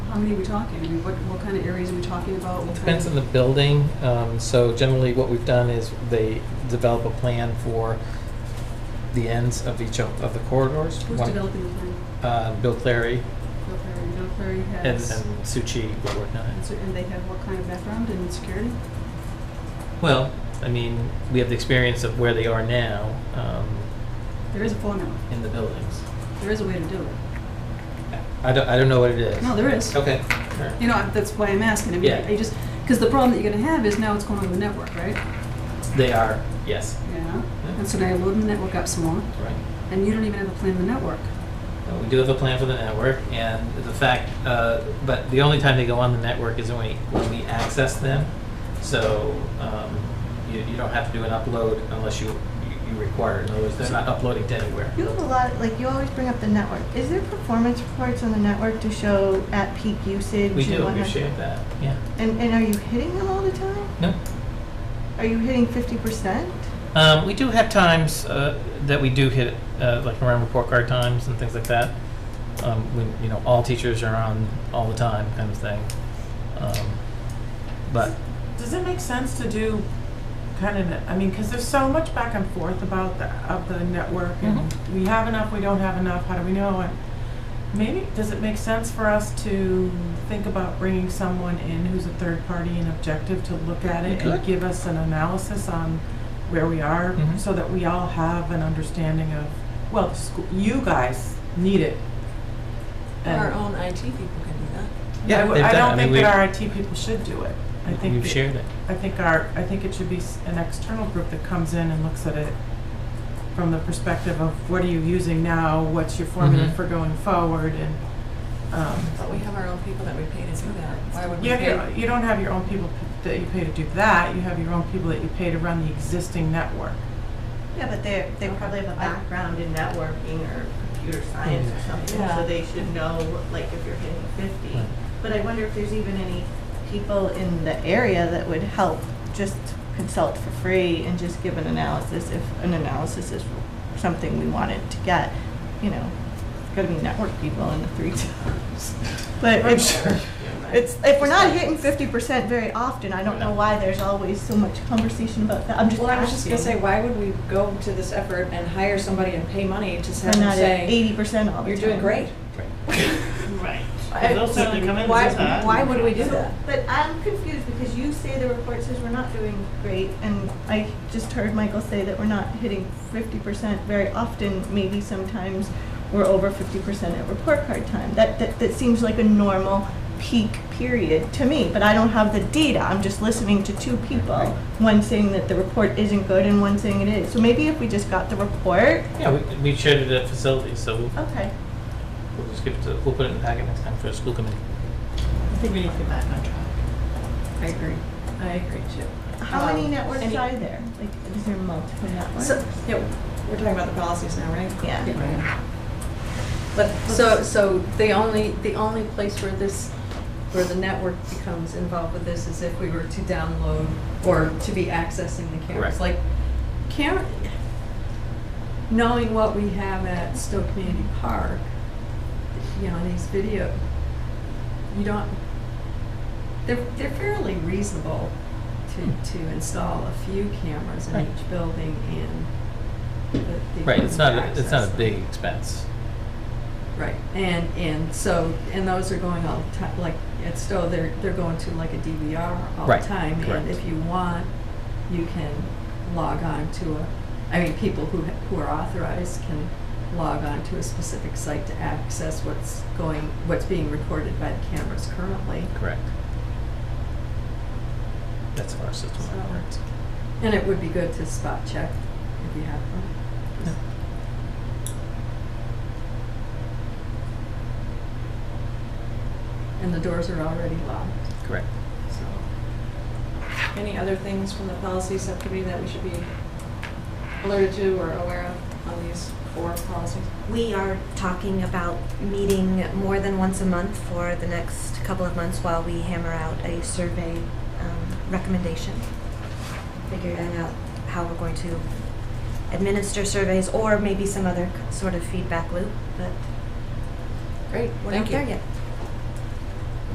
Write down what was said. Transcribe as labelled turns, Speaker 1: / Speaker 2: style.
Speaker 1: how many are we talking? I mean, what, what kind of areas are we talking about? What kind
Speaker 2: Depends
Speaker 1: of-
Speaker 2: on the building. Um, So generally, what we've done is they develop a plan for the ends of each of of the corridors.
Speaker 1: Who's
Speaker 2: One-
Speaker 1: developing the plan?
Speaker 2: uh, Bill Clary
Speaker 1: Bill Perry. Bill Perry
Speaker 2: and
Speaker 1: has,
Speaker 2: and Suu Kyi were working on
Speaker 1: and
Speaker 2: it.
Speaker 1: so- and they have what kind of background in security?
Speaker 2: Well, I mean, we have the experience of where they are now um,
Speaker 1: There is a formula.
Speaker 2: in the buildings.
Speaker 1: There is a way to do it.
Speaker 2: I don't, I don't know what it is.
Speaker 1: No, there is.
Speaker 2: Okay.
Speaker 1: You know, that's why I'm asking. I mean,
Speaker 2: Yeah.
Speaker 1: I just, because the problem that you're gonna have is now it's going over the network, right?
Speaker 2: They are, yes.
Speaker 1: Yeah. And so now you're loading the network up some more,
Speaker 2: Right.
Speaker 1: and you don't even have a plan of the network.
Speaker 2: Uh, We do have a plan for the network, and the fact, uh, but the only time they go on the network is when we, when we access them. So um, you, you don't have to do an upload unless you, you- you require it. In other words, they're not uploading to anywhere.
Speaker 3: You have a lot, like, you always bring up the network. Is there performance reports on the network to show at peak usage?
Speaker 2: We
Speaker 3: and
Speaker 2: do
Speaker 3: what have-
Speaker 2: appreciate that, yeah.
Speaker 3: And, and are you hitting them all the time?
Speaker 2: No,
Speaker 3: Are you hitting fifty percent?
Speaker 2: Um, we do have times uh, that we do hit, uh, like around report card times and things like that. Um, when you know all teachers are on all the time, kind of thing. Um, but
Speaker 4: Does it make sense to do kind of, I mean, because there's so much back and forth about the, of the network and
Speaker 2: Mm-hmm.
Speaker 4: we have enough, we don't have enough, how do we know? And Maybe, does it make sense for us to think about bringing someone in who's a third party and objective to look at
Speaker 2: We
Speaker 4: it
Speaker 2: could.
Speaker 4: and give us an analysis on where we are
Speaker 2: Mhm.
Speaker 4: so that we all have an understanding of, well, the school, you guys need it. And
Speaker 5: Our own IT people can do that.
Speaker 2: Yeah,
Speaker 4: I w-
Speaker 2: they've
Speaker 4: I
Speaker 2: done it. I mean,
Speaker 4: don't think
Speaker 2: we-
Speaker 4: that our IT people should do it. I think
Speaker 2: we've
Speaker 4: that-
Speaker 2: shared it.
Speaker 4: I think our, I think it should be s- an external group that comes in and looks at it from the perspective of what are you using now, what's your formula
Speaker 2: Mhm.
Speaker 4: for going forward, and, um,
Speaker 5: But we have our own people that we pay to do that. Why would we
Speaker 4: you have your,
Speaker 5: pay?
Speaker 4: you don't have your own people p- that you pay to do that, you have your own people that you pay to run the existing network.
Speaker 3: Yeah, but they, they probably have a background in networking or computer science or something,
Speaker 5: Yeah.
Speaker 3: so they should know, like, if you're hitting fifty.
Speaker 2: Right.
Speaker 3: But I wonder if there's even any people in the area that would help just consult for free and just give an analysis if an analysis is something we wanted to get, you know. It's gotta be network people in the three towns. But it's, it's, if we're not hitting fifty percent very often, I don't know why there's always so much conversation about that, I'm just
Speaker 5: Well, I was just gonna
Speaker 3: asking.
Speaker 5: say, why would we go to this effort and hire somebody and pay money to have
Speaker 3: We're
Speaker 5: them
Speaker 3: not at
Speaker 5: say,
Speaker 3: eighty percent all the
Speaker 5: you're
Speaker 3: time.
Speaker 5: doing great?
Speaker 6: Right.
Speaker 5: I-
Speaker 6: They'll certainly come in and
Speaker 5: Why,
Speaker 6: say that.
Speaker 5: why would we do that?
Speaker 3: But I'm confused because you say the report says we're not doing great, and I just heard Michael say that we're not hitting fifty percent very often. Maybe sometimes we're over fifty percent at report card time. That, that, that seems like a normal peak period to me, but I don't have the data. I'm just listening to two people, one saying that the report isn't good and one saying it is. So maybe if we just got the report,
Speaker 2: Yeah, we, we shared it at facilities, so we'll,
Speaker 3: okay.
Speaker 2: we'll just give it to, we'll put it in the packet next time for the school committee.
Speaker 3: I think we need to get back on track.
Speaker 5: I agree. I agree too.
Speaker 3: How many
Speaker 5: Um,
Speaker 3: networks
Speaker 5: any-
Speaker 3: are there? Like, is there multiple networks?
Speaker 5: So, yeah, we're talking about the policies now, right?
Speaker 3: Yeah.
Speaker 7: But, so, so the only, the only place where this, where the network becomes involved with this is if we were to download or to be accessing the
Speaker 2: Correct.
Speaker 7: cameras. Like, camera, knowing what we have at Stowe Community Park, you know, these video, you don't, they're, they're fairly reasonable to, to install a few cameras in
Speaker 2: Right.
Speaker 7: each building and the. the
Speaker 2: Right, it's not,
Speaker 7: ability
Speaker 2: a-
Speaker 7: to
Speaker 2: it's not a
Speaker 7: access
Speaker 2: big
Speaker 7: them.
Speaker 2: expense.
Speaker 7: Right, and, and so, and those are going all the time, like, at Stowe, they're, they're going to like a DVR all the
Speaker 2: Right,
Speaker 7: time.
Speaker 2: correct.
Speaker 7: And if you want, you can log on to a, I mean, people who, ha- who are authorized can log on to a specific site to access what's going, what's being recorded by the cameras currently.
Speaker 2: Correct. That's how our system
Speaker 7: So-
Speaker 2: works.
Speaker 7: And it would be good to spot check if you have them. And the doors are already locked,
Speaker 2: Correct.
Speaker 7: so.
Speaker 5: Any other things from the policy subcommittee that we should be alerted to or aware of on these four policies?
Speaker 8: We are talking about meeting more than once a month for the next couple of months while we hammer out a survey um, recommendation, figuring out how we're going to administer surveys or maybe some other c- sort of feedback loop, but
Speaker 5: Great,
Speaker 8: we're not
Speaker 5: thank you.
Speaker 8: there yet.